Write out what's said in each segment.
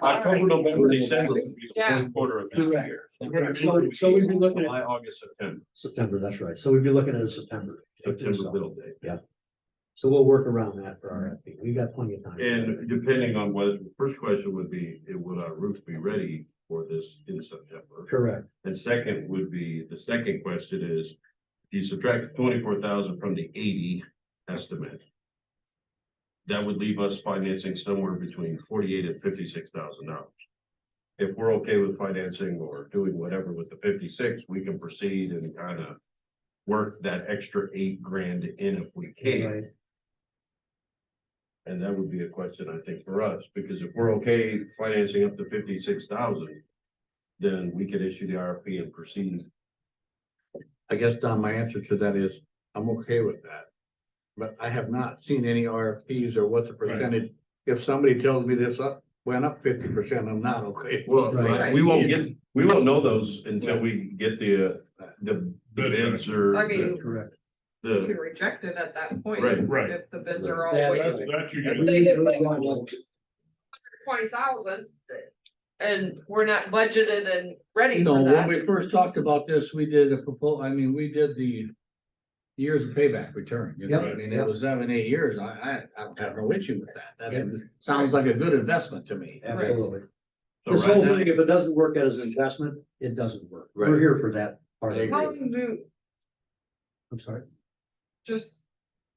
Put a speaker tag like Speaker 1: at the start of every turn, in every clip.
Speaker 1: October, November, December would be the
Speaker 2: Yeah.
Speaker 1: fourth quarter of next
Speaker 2: Correct.
Speaker 1: year.
Speaker 3: Okay, So, so we'd be looking at,
Speaker 1: July, August, September,
Speaker 4: September, that's right. So we'd be looking at a September.
Speaker 1: September middle day.
Speaker 4: So we'll work around that for RFP. We've got plenty of time.
Speaker 1: And depending on whether, first question would be, eh, would our roof be ready for this in September?
Speaker 4: Correct,
Speaker 1: And second would be, the second question is, if you subtract twenty-four thousand from the eighty estimate. That would leave us financing somewhere between forty-eight and fifty-six thousand dollars. If we're okay with financing or doing whatever with the fifty-six, we can proceed and kind of. Work that extra eight grand in if we can,
Speaker 4: right,
Speaker 1: and that would be a question, I think, for us, because if we're okay financing up to fifty-six thousand. Then we could issue the RFP and proceed
Speaker 5: I guess, Don, my answer to that is, I'm okay with that. But I have not seen any RFPs or what the percentage, if somebody tells me this up, went up fifty percent, I'm not okay.
Speaker 1: Well,
Speaker 4: Right.
Speaker 1: we won't get, we won't know those until we get the, uh, the bids or.
Speaker 2: I mean-
Speaker 4: correct.
Speaker 2: You can
Speaker 1: The,
Speaker 2: reject it at that point.
Speaker 1: Right.
Speaker 6: Right,
Speaker 2: If the bids are all
Speaker 4: Yeah,
Speaker 2: way
Speaker 4: that's-
Speaker 6: that you
Speaker 4: We
Speaker 6: get,
Speaker 4: need to move on.
Speaker 2: twenty thousand. And we're not budgeted and ready
Speaker 5: You know,
Speaker 2: for
Speaker 5: when
Speaker 2: that.
Speaker 5: we first talked about this, we did a proposal, I mean, we did the years of payback return, you know,
Speaker 4: Yep.
Speaker 5: I mean, it was seven, eight years, I, I, I don't have no issue with that.
Speaker 4: Yep.
Speaker 5: That sounds like a good investment to me.
Speaker 4: Absolutely. This
Speaker 1: so
Speaker 4: whole
Speaker 1: right
Speaker 4: thing, if it doesn't work as an investment, it doesn't work. We're
Speaker 5: Right.
Speaker 4: here for that part. of
Speaker 5: I
Speaker 4: it.
Speaker 5: agree.
Speaker 2: How long do,
Speaker 4: I'm sorry.
Speaker 2: just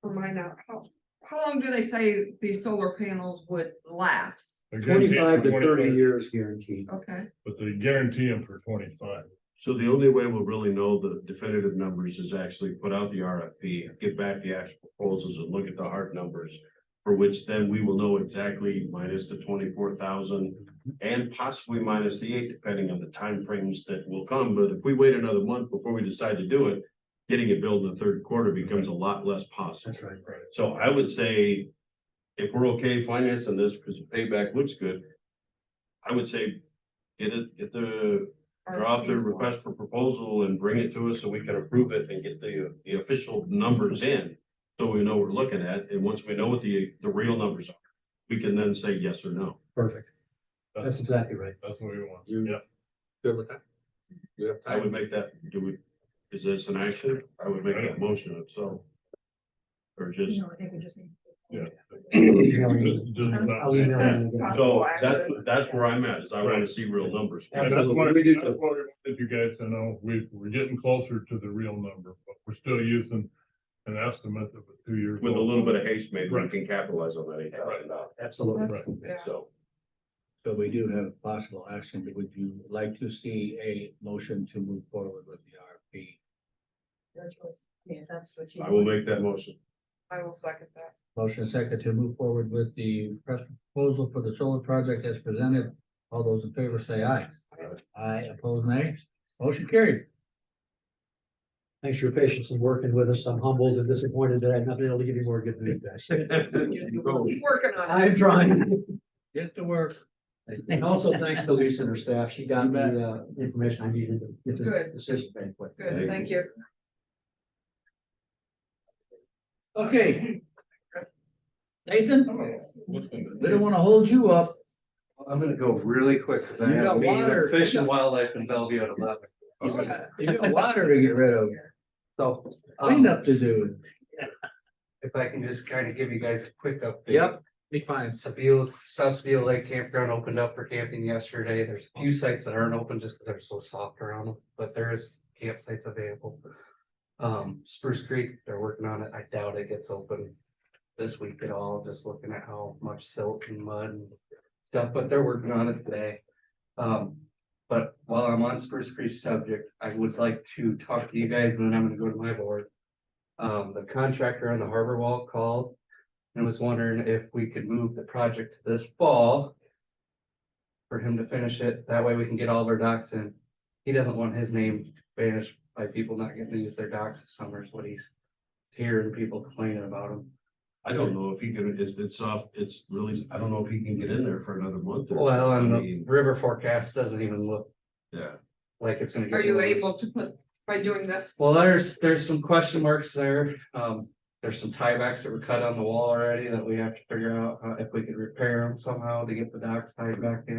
Speaker 2: remind out, how, how long do they say these solar panels would last?
Speaker 6: a guarantee
Speaker 4: Twenty-five
Speaker 6: for
Speaker 4: to thirty
Speaker 6: 25,
Speaker 4: years guaranteed.
Speaker 2: Okay,
Speaker 6: but they guarantee them for twenty-five.
Speaker 1: so the only way we'll really know the definitive numbers is actually put out the RFP, get back the actual proposals and look at the hard numbers. For which then we will know exactly minus the twenty-four thousand and possibly minus the eight, depending on the timeframes that will come. But if we wait another month before we decide to do it, getting it billed in the third quarter becomes a lot less possible.
Speaker 4: That's right.
Speaker 1: So I would say, if we're okay financing this, because the payback looks good. I would say, get it, get the, drop the
Speaker 2: RFPs.
Speaker 1: request for proposal and bring it to us so we can approve it and get the, the official numbers in. So we know what we're looking at, and once we know what the, the real numbers are, we can then say yes or no.
Speaker 4: Perfect. That's
Speaker 6: That's,
Speaker 4: exactly right.
Speaker 6: that's what we want.
Speaker 5: You-
Speaker 6: Yeah,
Speaker 5: Good with that? You have
Speaker 1: I
Speaker 5: time?
Speaker 1: would make that, do we, is this an action? I would make that motion itself. Or just,
Speaker 7: No, I think we just need.
Speaker 6: yeah.
Speaker 4: Absolutely.
Speaker 6: Just- just
Speaker 4: I'll
Speaker 6: not-
Speaker 4: email
Speaker 2: It says
Speaker 4: them again.
Speaker 1: so
Speaker 2: possible
Speaker 1: that's,
Speaker 2: action.
Speaker 1: that's where I'm at, is I wanna see real numbers.
Speaker 6: And that's what,
Speaker 4: We do
Speaker 6: that's
Speaker 4: too.
Speaker 6: what we wanted you guys to know, we, we're getting closer to the real number, but we're still using an estimate that was two years.
Speaker 1: With a
Speaker 6: old.
Speaker 1: little bit of haste, maybe we
Speaker 6: Right.
Speaker 1: can capitalize on that eight thousand dollars,
Speaker 4: Absolutely.
Speaker 2: That's- yeah.
Speaker 1: so.
Speaker 5: So we do have possible action. Would you like to see a motion to move forward with the RFP?
Speaker 7: Your choice. Yeah, that's what you.
Speaker 1: I will make that motion.
Speaker 2: I will second that.
Speaker 5: Motion second to move forward with the press proposal for the solar project as presented. All those in favor say aye. Aye, opposed nay. Motion carried.
Speaker 4: Thanks for your patience and working with us. I'm humbled and disappointed that I've not been able to give you more good news. guys.
Speaker 2: Keep working on it.
Speaker 4: I'm trying.
Speaker 5: Get to work.
Speaker 4: And also thanks to Lisa and her staff. She got me the information I needed to get
Speaker 2: Good.
Speaker 4: this decision made quick.
Speaker 2: Good, thank you.
Speaker 5: Okay. Nathan, we don't
Speaker 8: I'm
Speaker 5: want to hold you up.
Speaker 8: gonna go really quick, because I
Speaker 5: You
Speaker 8: have
Speaker 5: got
Speaker 8: a meeting
Speaker 5: water.
Speaker 8: with Fish and Wildlife in Bellevue at eleven.
Speaker 5: You got water to get rid of.
Speaker 8: So, um,
Speaker 5: Cleanup to do.
Speaker 8: if I can just kind of give you guys a quick update.
Speaker 5: Be fine.
Speaker 8: Sabeel, South Sabeel Lake Campground opened up for camping yesterday. There's a few sites that aren't open just because they're so soft around them, but there is campsites available. Um, Spruce Creek, they're working on it. I doubt it gets open this week at all, just looking at how much silt and mud and stuff, but they're working on it today. Um, but while I'm on Spruce Creek subject, I would like to talk to you guys and then I'm gonna go to my board. Um, the contractor on the harbor wall called and was wondering if we could move the project to this fall. For him to finish it, that way we can get all of our docks in. He doesn't want his name banished by people not getting to use their docks this summer is what he's hearing people complaining about him.
Speaker 1: I don't know if he can, it's, it's off, it's really, I don't know if he can get in there for another month. or
Speaker 8: Well,
Speaker 1: something.
Speaker 8: and
Speaker 1: I
Speaker 8: the
Speaker 1: mean,
Speaker 8: river forecast doesn't even look
Speaker 1: Yeah,
Speaker 8: like it's gonna. get
Speaker 2: Are you
Speaker 8: warm.
Speaker 2: able to put, by doing this,
Speaker 8: Well, there's, there's some question marks there. Um, there's some tiebacks that were cut on the wall already that we have to figure out uh, if we could repair them somehow to get the docks tied back in.